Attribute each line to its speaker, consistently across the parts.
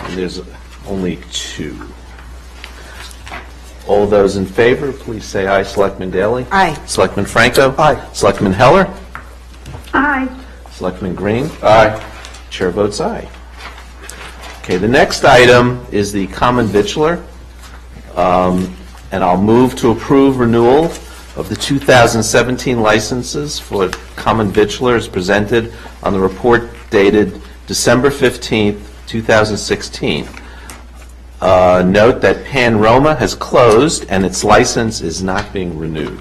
Speaker 1: And there's only two. All those in favor, please say aye. Selectman Daley?
Speaker 2: Aye.
Speaker 1: Selectman Franco?
Speaker 3: Aye.
Speaker 1: Selectman Heller?
Speaker 4: Aye.
Speaker 1: Selectman Green? Aye. Chair votes aye. Okay, the next item is the common vitular, Um, and I'll move to approve renewal of the 2017 licenses for common vitular as presented on the report dated December 15th, 2016. Uh, Note that Pan Roma has closed and its license is not being renewed.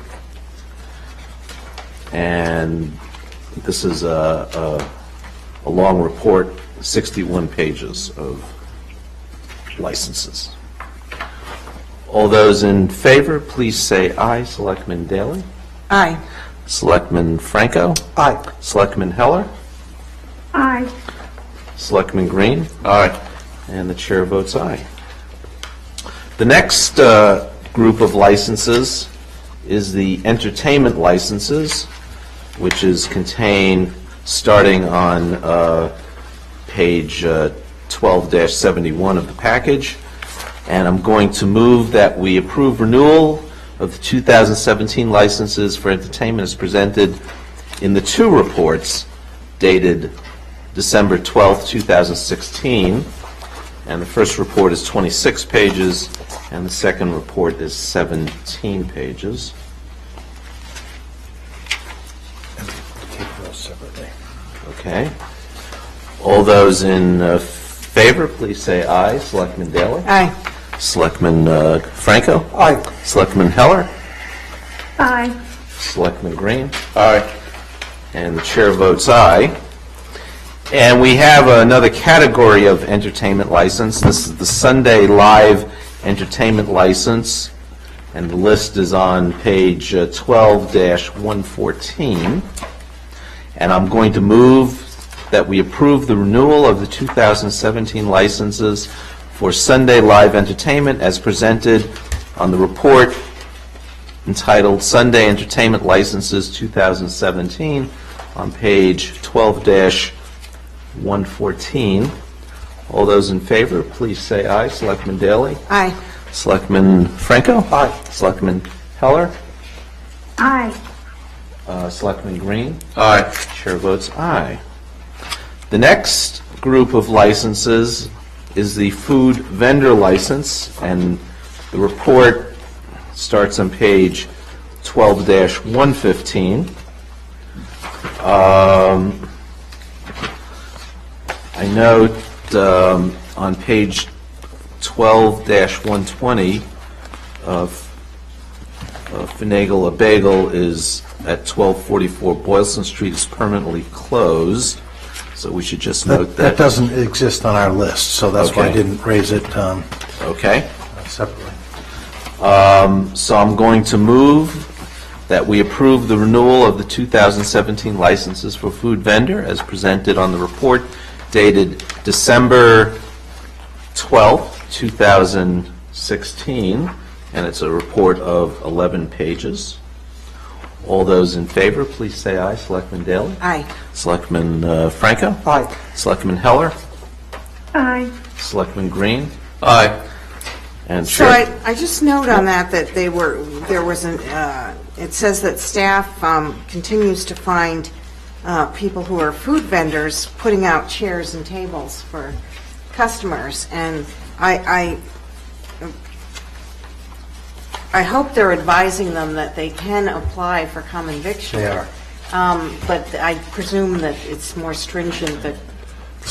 Speaker 1: And this is a, a, a long report, 61 pages of licenses. All those in favor, please say aye. Selectman Daley?
Speaker 2: Aye.
Speaker 1: Selectman Franco?
Speaker 3: Aye.
Speaker 1: Selectman Heller?
Speaker 4: Aye.
Speaker 1: Selectman Green? Aye. And the chair votes aye. The next uh, group of licenses is the entertainment licenses, which is contained starting on uh, page uh, 12-71 of the package. And I'm going to move that we approve renewal of the 2017 licenses for entertainment as presented in the two reports dated December 12th, 2016. And the first report is 26 pages, and the second report is 17 pages.
Speaker 3: Take those separately.
Speaker 1: Okay. All those in uh, favor, please say aye. Selectman Daley?
Speaker 2: Aye.
Speaker 1: Selectman uh, Franco?
Speaker 3: Aye.
Speaker 1: Selectman Heller?
Speaker 4: Aye.
Speaker 1: Selectman Green? Aye. And the chair votes aye. And we have another category of entertainment license. This is the Sunday Live Entertainment License, and the list is on page uh, 12-114. And I'm going to move that we approve the renewal of the 2017 licenses for Sunday Live Entertainment as presented on the report entitled Sunday Entertainment Licenses 2017 on page 12-114. All those in favor, please say aye. Selectman Daley?
Speaker 2: Aye.
Speaker 1: Selectman Franco?
Speaker 3: Aye.
Speaker 1: Selectman Heller?
Speaker 4: Aye.
Speaker 1: Uh, Selectman Green? Aye. Chair votes aye. The next group of licenses is the food vendor license, and the report starts on page 12-115. Um, I note um, on page 12-120, uh, uh, Finagle a Bagel is at 1244 Boylston Street is permanently closed, so we should just note
Speaker 3: That, that
Speaker 1: that.
Speaker 3: doesn't exist on our list, so that's why I
Speaker 1: Okay.
Speaker 3: didn't raise it um,
Speaker 1: Okay,
Speaker 3: separately.
Speaker 1: so I'm going to move that we approve the renewal of the 2017 licenses for food vendor as presented on the report dated December 12th, 2016, and it's a report of 11 pages. All those in favor, please say aye. Selectman Daley?
Speaker 2: Aye.
Speaker 1: Selectman uh, Franco?
Speaker 3: Aye.
Speaker 1: Selectman Heller?
Speaker 4: Aye.
Speaker 1: Selectman Green? Aye. And
Speaker 2: So I,
Speaker 1: Chair,
Speaker 2: I just note on that that they were, there was an, uh, it says that staff um, continues to find uh, people who are food vendors putting out chairs and tables for customers, and I, I, I hope they're advising them that they can apply for common victual.
Speaker 3: They are.
Speaker 2: Um, But I presume that it's more stringent that,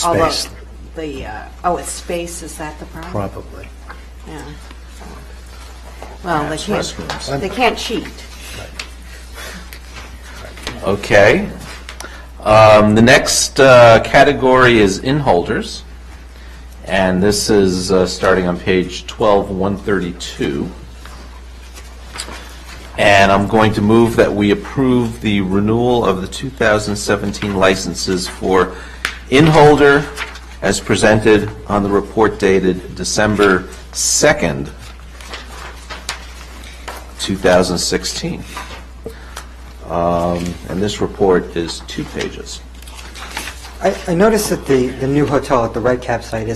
Speaker 2: although,
Speaker 3: Space.
Speaker 2: the, uh, oh, it's space, is that the problem?
Speaker 3: Probably.
Speaker 2: Yeah. Well, they
Speaker 1: restrooms.
Speaker 2: can't, they can't cheat.
Speaker 1: okay. Um, The next uh, category is inholders, and this is uh, starting on page 12, 132. And I'm going to move that we approve the renewal of the 2017 licenses for inholder as presented on the report dated December 2nd, 2016. Um, And this report is two pages.
Speaker 5: I I noticed that the the new hotel at the Red Cap site is.